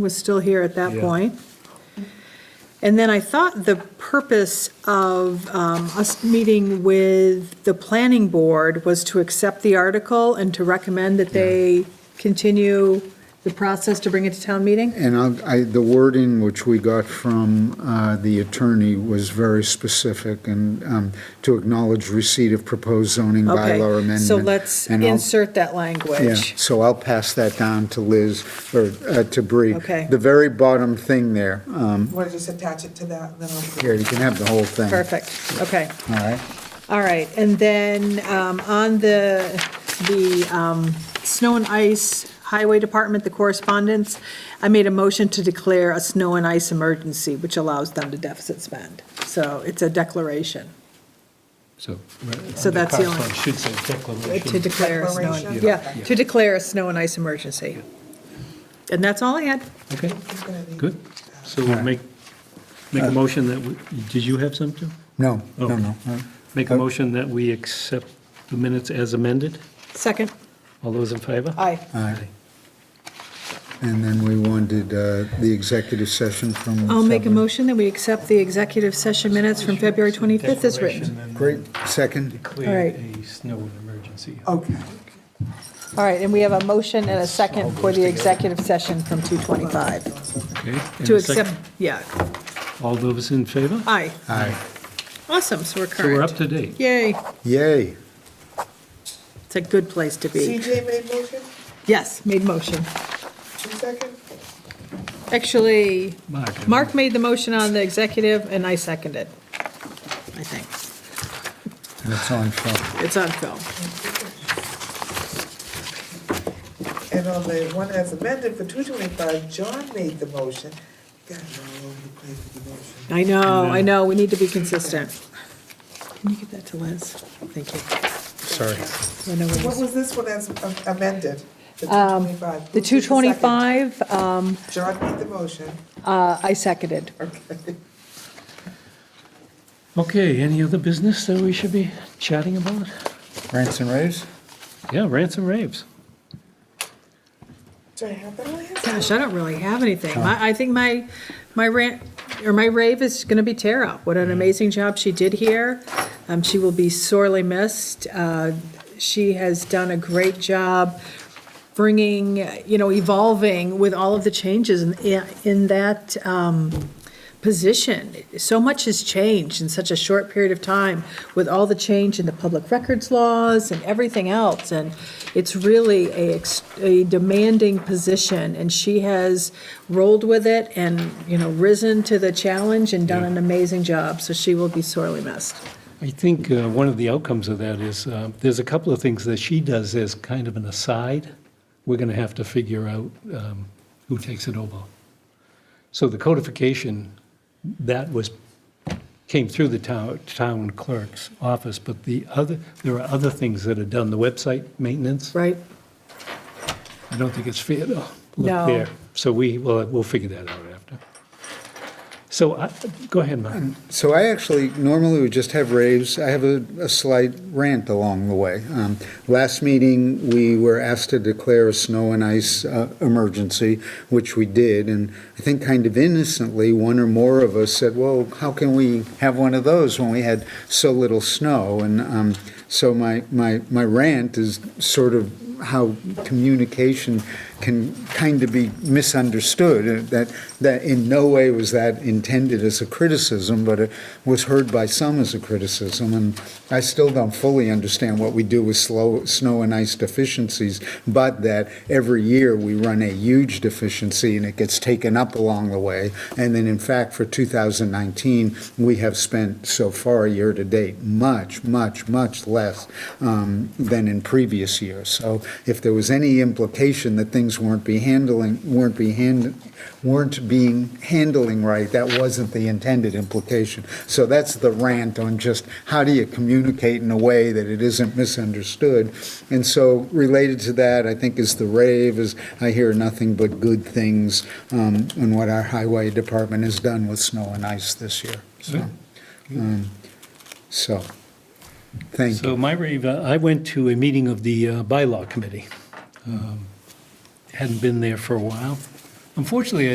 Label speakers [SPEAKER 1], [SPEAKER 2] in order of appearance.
[SPEAKER 1] was still here at that
[SPEAKER 2] Yeah.
[SPEAKER 1] point. And then I thought the purpose of um, us meeting with the planning board was to accept the article and to recommend that they continue the process to bring it to town meeting?
[SPEAKER 3] And I'll- I, the wording which we got from uh, the attorney was very specific and um, to acknowledge receipt of proposed zoning Mm. bylaw
[SPEAKER 1] Okay,
[SPEAKER 3] amendment.
[SPEAKER 1] so let's
[SPEAKER 3] And I'll-
[SPEAKER 1] insert that
[SPEAKER 3] Yeah,
[SPEAKER 1] language.
[SPEAKER 3] so I'll pass that down to Liz, or uh, to Bree.
[SPEAKER 1] Okay.
[SPEAKER 3] The very bottom thing there, um,
[SPEAKER 4] Want to just attach it to that, and then I'll.
[SPEAKER 3] here, you can have the whole thing.
[SPEAKER 1] Perfect, okay.
[SPEAKER 3] All right,
[SPEAKER 1] All right, and then um, on the, the um, snow and ice highway department, the correspondence, I made a motion to declare a snow and ice emergency, which allows them to deficit spend. So it's a declaration
[SPEAKER 2] So.
[SPEAKER 1] So that's the only-
[SPEAKER 2] Correspondence Should say
[SPEAKER 1] to
[SPEAKER 2] declaration.
[SPEAKER 1] declare, a snow and-
[SPEAKER 4] Declaration?
[SPEAKER 1] yeah, to declare a snow and ice emergency. And that's all I had.
[SPEAKER 2] Okay,
[SPEAKER 4] it's gonna be-
[SPEAKER 2] good. Uh, So we'll make, make a motion that, we- did you have something?
[SPEAKER 3] no,
[SPEAKER 2] Oh.
[SPEAKER 3] no, no. no.
[SPEAKER 2] Make a motion that we accept the minutes as amended?
[SPEAKER 1] Second?
[SPEAKER 2] All those in favor?
[SPEAKER 1] Aye.
[SPEAKER 3] All right. And then we wanted uh, the executive session from.
[SPEAKER 1] I'll make a
[SPEAKER 3] seven.
[SPEAKER 1] motion that we accept the executive session minutes from February 25th as written.
[SPEAKER 3] Great, second,
[SPEAKER 1] All
[SPEAKER 2] Declare
[SPEAKER 1] right.
[SPEAKER 2] a snow emergency.
[SPEAKER 4] Okay,
[SPEAKER 1] All right, and we have a motion and a second for the executive session from 2:25.
[SPEAKER 2] Okay, and
[SPEAKER 1] To
[SPEAKER 2] a second?
[SPEAKER 1] accept, yeah,
[SPEAKER 2] All those in favor?
[SPEAKER 1] aye.
[SPEAKER 3] aye,
[SPEAKER 1] Awesome, so we're
[SPEAKER 2] So we're
[SPEAKER 1] current.
[SPEAKER 2] up to date.
[SPEAKER 1] Yay,
[SPEAKER 3] yay.
[SPEAKER 1] it's a good place to be.
[SPEAKER 4] CJ made motion,
[SPEAKER 1] Yes, made motion.
[SPEAKER 4] two second,
[SPEAKER 1] Actually,
[SPEAKER 2] Mark.
[SPEAKER 1] Mark made the motion on the executive, and I seconded, I think.
[SPEAKER 3] That's on film.
[SPEAKER 1] It's on film.
[SPEAKER 4] and on the one as amended for two twenty-five, John made the motion. God, I'm all over the place with the motion.
[SPEAKER 1] I know, I know, we need to be consistent. Can you give that to Liz? Thank you.
[SPEAKER 3] Sorry.
[SPEAKER 1] I know where it
[SPEAKER 4] What
[SPEAKER 1] is.
[SPEAKER 4] was this one as am- amended? Um, The two twenty-five.
[SPEAKER 1] The 225, um,
[SPEAKER 4] John made the motion,
[SPEAKER 1] uh, I seconded.
[SPEAKER 4] okay.
[SPEAKER 2] Okay, any other business that we should be chatting about?
[SPEAKER 3] Rants and raves?
[SPEAKER 2] Yeah, rants and raves.
[SPEAKER 4] Do I have that on hand?
[SPEAKER 1] Gosh, I don't really have anything. My, I think my, my rant, or my rave is gonna be Tara. What an amazing job she did here. Um, she will be sorely missed. Uh, she has done a great job bringing, you know, evolving with all of the changes in, in that, um, position. So much has changed in such a short period of time with all the change in the public records laws and everything else. And it's really a, ex- a demanding position and she has rolled with it and, you know, risen to the challenge and done an amazing job. So she will be sorely missed.
[SPEAKER 2] I think uh, one of the outcomes of that is, uh, there's a couple of things that she does as kind of an aside. We're going to have to figure out um, who takes it over. So the codification, that was, came through the town town clerk's office, but the other, there are other things that are done, the website maintenance.
[SPEAKER 1] Right?
[SPEAKER 2] I don't think it's fair to
[SPEAKER 1] No.
[SPEAKER 2] look there. So we, well, we'll figure that out after. So, I- go ahead, Mark.
[SPEAKER 3] So I actually, normally we just have raves. I have a, a slight rant along the way. Um, Last meeting, we were asked to declare a snow and ice uh, emergency, which we did. And I think kind of innocently, one or more of us said, well, how can we have one of those when we had so little snow? And um, so my, my, my rant is sort of how communication can kind of be misunderstood. uh, That, that in no way was that intended as a criticism, but it was heard by some as a criticism. And I still don't fully understand what we do with slow, snow and ice deficiencies, but that every year we run a huge deficiency and it gets taken up along the way. And then in fact, for 2019, we have spent so far, year-to-date, much, much, much less um, than in previous years. So if there was any implication that things weren't be handling, weren't be hand, weren't being handling right, that wasn't the intended implication. So that's the rant on just how do you communicate in a way that it isn't misunderstood? And so related to that, I think is the rave, is I hear nothing but good things um, on what our highway department has done with snow and ice this year. So, um, so, thank
[SPEAKER 2] So
[SPEAKER 3] you.
[SPEAKER 2] my rave, uh, I went to a meeting of the uh, bylaw committee. Um, Hadn't been there for a while. Unfortunately,